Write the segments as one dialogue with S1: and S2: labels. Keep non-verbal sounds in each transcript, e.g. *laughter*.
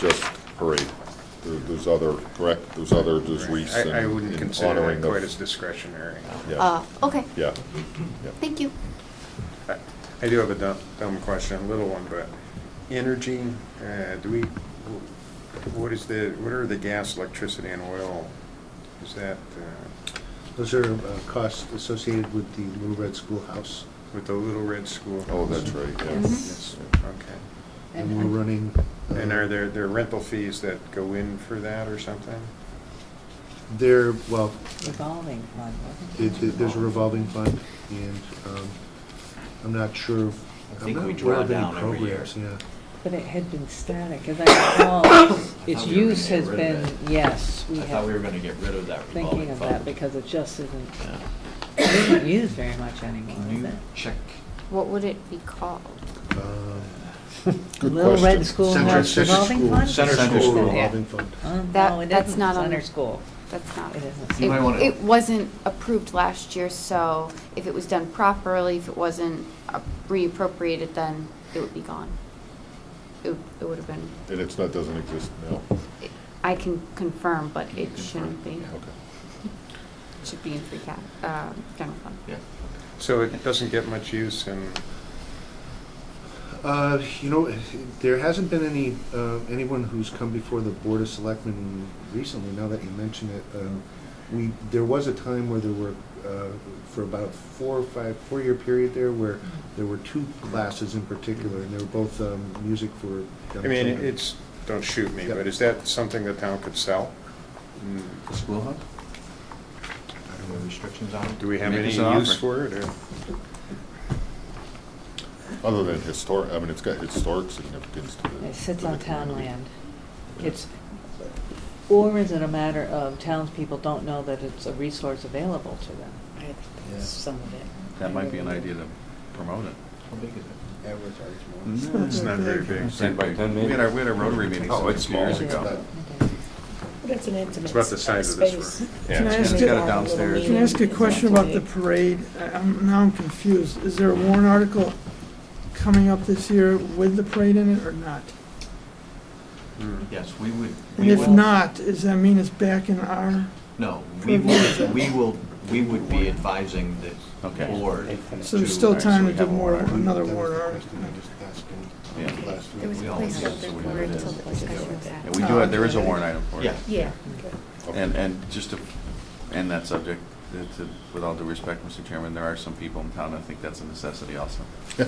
S1: just parade. There- There's other, correct, there's other, there's wreaths and
S2: I, I wouldn't
S1: and
S2: consider
S1: honoring
S2: it
S1: of-
S2: quite as discretionary.
S1: Yeah,
S3: Uh, okay,
S1: yeah, yeah.
S3: thank you.
S2: I I do have a dumb, dumb question, a little one, but energy, uh, do we, wh- what is the, what are the gas, electricity, and oil? Is that uh,
S4: Those are uh, costs associated with the Little Red Schoolhouse.
S2: with the Little Red School?
S1: Oh, that's right,
S5: Mm-hmm.
S2: Yes,
S1: yeah.
S2: okay.
S4: And we're running. uh,
S2: And are there, there are rental fees that go in for that or something?
S4: They're, well,
S5: Revolving fund,
S4: it-
S5: wasn't
S4: it- there's a revolving fund, and um, I'm not sure.
S6: I
S4: I'm
S6: think
S4: not
S6: we
S4: aware of
S6: draw
S4: any
S6: down every year.
S4: programs, Yeah.
S5: But it had been static, as I
S6: *coughs*
S5: recall, its
S6: thought we were
S5: use
S6: gonna
S5: has
S6: get rid
S5: been,
S6: of it.
S5: yes, we
S6: I thought we were
S5: have,
S6: gonna get rid of that
S5: thinking
S6: revolving
S5: of that,
S6: fund.
S5: because it just isn't,
S6: Yeah.
S5: isn't used very much anymore,
S6: Can
S5: is
S6: you
S5: it?
S6: check?
S3: What would it be called?
S4: Um,
S1: Good
S5: Little
S1: question.
S4: Center-
S5: Red Schoolhouse
S4: Center
S5: revolving
S4: School-
S5: fund?
S6: Center
S4: Center
S6: School.
S4: School
S6: Yeah.
S4: revolving fund.
S5: Um,
S3: That-
S5: No, it
S3: that's
S5: isn't
S3: not on-
S5: center school.
S3: That's not.
S5: It isn't.
S6: You might wanna-
S3: It, it wasn't approved last year, so if it was done properly, if it wasn't uh, reappropriated, then it would be gone. It, would- it would have been,
S1: And it's not, doesn't exist now?
S3: it- I can confirm, but it shouldn't be.
S6: Yeah.
S1: Okay.
S3: It Should be in free cap, uh, general fund.
S6: Yeah.
S2: So it doesn't get much use in,
S4: Uh, You know, there hasn't been any, uh, anyone who's come before the Board of Selectmen recently, now that you mention it. Um, We, there was a time where there were, uh, for about four or five, four-year period there, where there were two classes in particular, and they were both um, music for young
S2: I
S4: children.
S2: mean, it's, don't shoot me,
S4: Yeah.
S2: but is that something the town could sell? Mm,
S6: The school hub? Are there any restrictions on it?
S2: Do we have
S6: Make
S2: any
S6: us an
S2: use
S6: offer.
S2: for it, or?
S1: Other than historic, I mean, it's got historic significance to the. to
S5: It sits
S1: the
S5: on town
S1: community.
S5: land.
S1: Yeah.
S5: It's, or is it a matter of townspeople don't know that it's a resource available to them?
S7: I think
S4: Yeah.
S7: that's some of it.
S8: That might be an idea to promote
S5: *laughs*
S8: it.
S6: How big is
S2: It's not very big.
S8: Ten by ten maybe? We had our, we had our Rotary meeting
S2: Oh,
S8: some
S2: it's
S8: two years
S2: small.
S8: ago.
S7: But it's an intimate
S2: It's about the
S7: s-
S2: size of this
S7: space.
S2: room.
S8: Yeah,
S9: Can I
S8: it's
S9: ask
S8: got
S9: a-
S8: it downstairs.
S9: Can I ask a question about the parade? I- I'm, now I'm confused. Is there a warrant article coming up this year with the parade in it or not?
S2: Hmm.
S6: it? Yes, we would.
S9: And
S6: we
S9: if
S6: would-
S9: not, does that mean it's back in our,
S6: No, we will, we will, we would be advising the
S8: Okay.
S6: board.
S9: so there's still time to do more, another warrant article?
S6: Yeah.
S3: There was a
S6: We all
S3: place
S6: know
S3: out there
S6: what
S3: for it
S6: it is.
S3: till the discussion was had.
S8: Yeah, we do, it. there is a warrant item for it.
S6: Yeah.
S3: Yeah.
S1: Okay.
S8: And, and just to end that subject, it's a- with all due respect, Mr. Chairman, there are some people in town that think that's a necessity also.
S1: *laughs*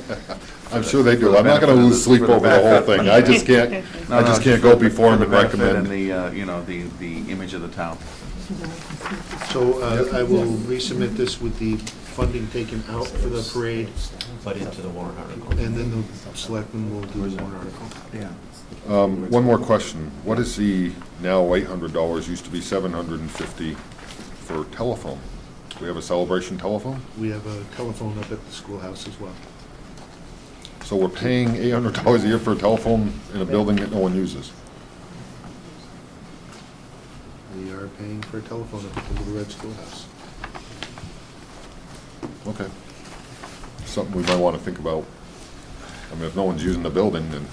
S1: I'm sure they do. I'm not gonna lose sleep over the whole thing. I just can't, I just can't go before him
S8: them
S1: and recommend.
S8: And the, uh, you know, the, the image of the town.
S4: So uh, I will resubmit this with the funding taken out for the parade,
S6: But into the warrant article.
S4: and then the selectmen will do the warrant article.
S8: Yeah.
S1: Um, One more question. What is the now eight hundred dollars, used to be seven hundred and fifty for telephone? Do we have a celebration telephone?
S4: We have a telephone up at the schoolhouse as well.
S1: So we're paying eight hundred dollars a year for a telephone in a building that no one uses.
S4: We are paying for a telephone up at the Little Red Schoolhouse.
S1: Okay. Something we might wanna think about. I mean, if no one's using the building, then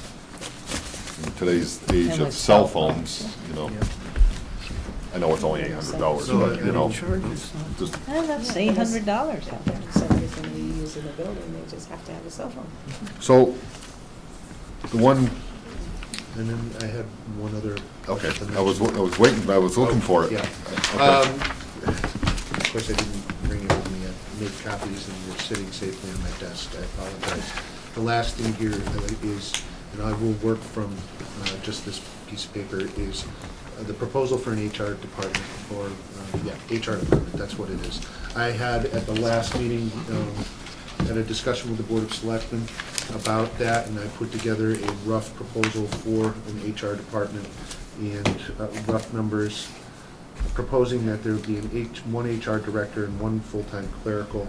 S1: in today's age
S5: And
S1: of
S5: with
S1: cell
S5: cell
S1: phones, you know, I know Oh, it's only eight hundred dollars, but,
S4: uh,
S1: you know, just
S5: And that's eight hundred dollars out there.
S7: So everything we use in the building, they just have to have a cell phone.
S1: So, the one,
S4: And then I had one other.
S1: okay,
S4: question
S1: I was,
S4: mentioned.
S1: I was waiting, I was looking for it.
S4: Yeah.
S1: Okay.
S4: Um, Of course, I didn't bring it with me. I made copies and they're sitting safely on my desk. I apologize. The last thing here uh, is, and I will work from uh, just this piece of paper, is uh, the proposal for an HR department, or, uh, yeah, HR department, that's what it is. I had at the last meeting, um, had a discussion with the Board of Selectmen about that, and I put together a rough proposal for an HR department and uh, rough numbers, proposing that there be an H, one HR director and one full-time clerical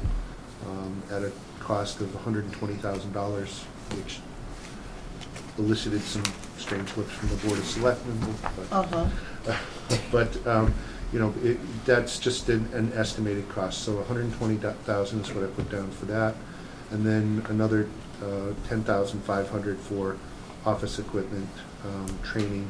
S4: um, at a cost of hundred and twenty thousand dollars, which elicited some strange looks from the Board of Selectmen. but-
S5: Uh-huh.
S4: *laughs* but, um, you know, it, that's just an, an estimated cost, so hundred and twenty thousand is what I put down for that. And then another, uh, ten thousand five hundred for office equipment, um, training,